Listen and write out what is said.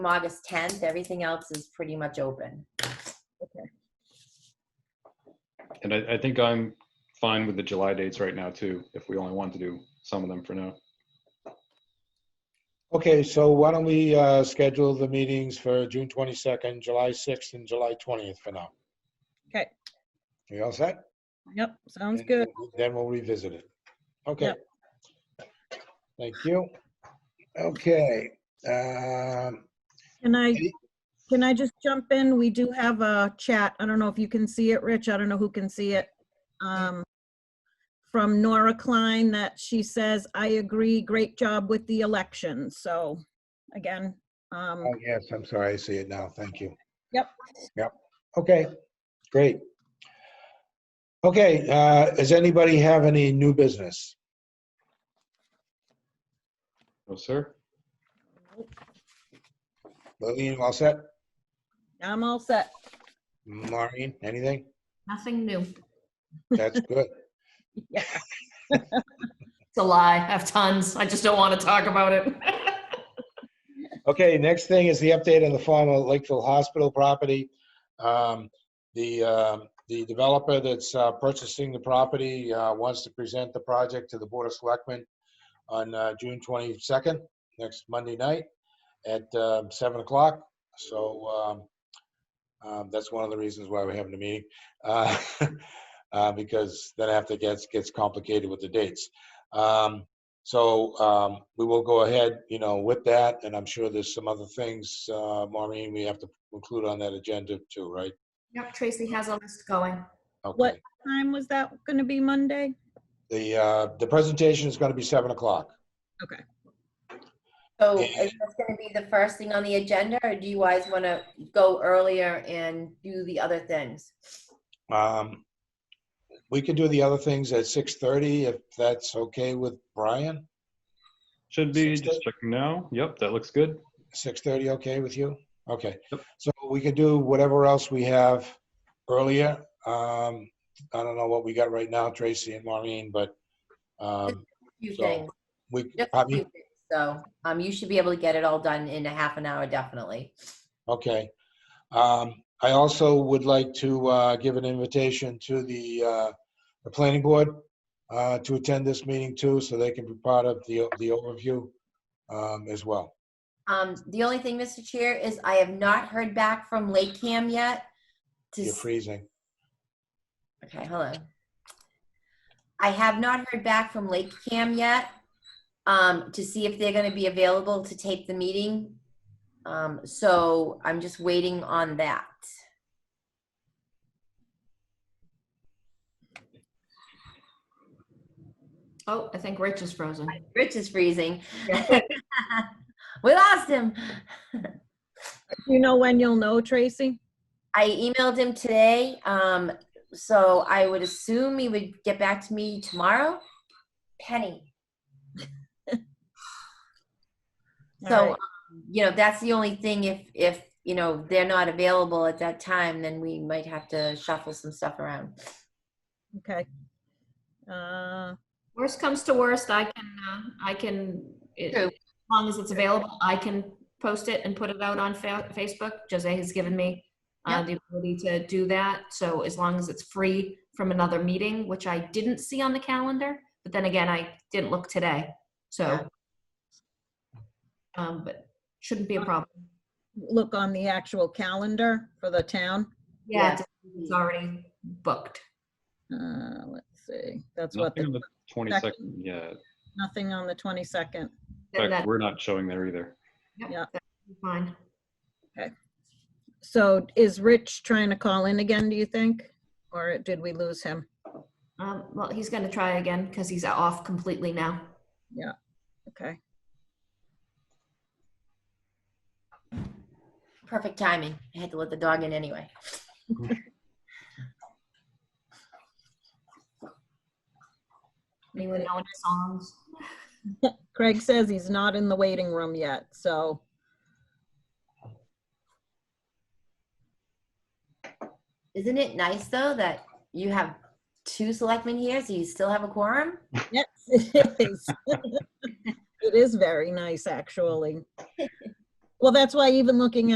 from August 10th. Everything else is pretty much open. And I, I think I'm fine with the July dates right now too, if we only want to do some of them for now. Okay, so why don't we uh, schedule the meetings for June 22nd, July 6th, and July 20th for now? Okay. You all set? Yep, sounds good. Then we'll revisit it. Okay. Yep. Thank you. Okay. um, Can I, Any- can I just jump in? We do have a chat. I don't know if you can see it, Rich. I don't know who can see it. Um, From Nora Klein that she says, I agree, great job with the election. So again, um, Oh, yes, I'm sorry, I see it now, thank you. Yep. Yep, okay, great. Okay, uh, does anybody have any new business? No, sir? Lillian, all set? I'm all set. Maureen, anything? Nothing new. That's good. Yeah. It's a lie. I have tons. I just don't want to talk about it. Okay, next thing is the update on the former Lakeville Hospital property. Um, The, um, the developer that's uh, purchasing the property uh, wants to present the project to the Board of Selectmen on uh, June 22nd, next Monday night at um, 7 o'clock. So um, um, that's one of the reasons why we're having a meeting. uh, uh, Because then after it gets, gets complicated with the dates. Um, so um, we will go ahead, you know, with that, and I'm sure there's some other things, uh, Maureen, we have to include on that agenda too, right? Yep, Tracy has a list going. Okay. What time was that going to be Monday? The, uh, the presentation is going to be 7 o'clock. So Yeah. is this going to be the first thing on the agenda, or do you guys want to go earlier and do the other things? Um, We can do the other things at 6:30 if that's okay with Brian? Should be, Six just checking now. Yep, that looks good. 6:30, okay with you? Okay. Yep. So we can do whatever else we have earlier. Um, I don't know what we got right now, Tracy and Maureen, but um, Few So, things. we, Just a pardon few me? things. So um, you should be able to get it all done in a half an hour, definitely. Okay. Um, I also would like to uh, give an invitation to the, uh, the planning board uh, to attend this meeting too, so they can be part of the, the overview um, as well. Um, the only thing, Mr. Chair, is I have not heard back from Lake Cam yet. To You're s- freezing. okay, hello. I have not heard back from Lake Cam yet um, to see if they're going to be available to tape the meeting. Um, so I'm just waiting on that. Oh, I think Rich is frozen. Rich is freezing. we lost him. Do you know when you'll know, Tracy? I emailed him today, um, so I would assume he would get back to me tomorrow. Penny. All So, right. um, you know, that's the only thing. If if you know they're not available at that time, then we might have to shuffle some stuff around. Okay. Uh, Worst comes to worst, I can, uh, I can, it- True. as long as it's available, I can post it and put it out on Fa- Facebook. Jose has given me uh, the ability to do that. So as long as it's free from another meeting, which I didn't see on the calendar, but then again, I didn't look today. Yeah. So. Um, but shouldn't be a problem. Look on the actual calendar for the town. Yeah. Yeah, it's already booked. Uh, let's see, that's what, Nothing on the the 22nd Yeah. nothing on the 22nd. In Then fact, that- we're not showing there either. yep, yeah. that's Fine. So is Rich trying to call in again, do you think? Or did we lose him? Um, well, he's gonna try again because he's off completely now. Okay, Perfect timing. I had to let the dog in anyway. Anyone know any songs? Craig says he's not in the waiting room yet, so. Isn't it nice though that you have two selectmen here, so you still have a quorum? Yes, it is. It is very nice, actually. Well, that's why even looking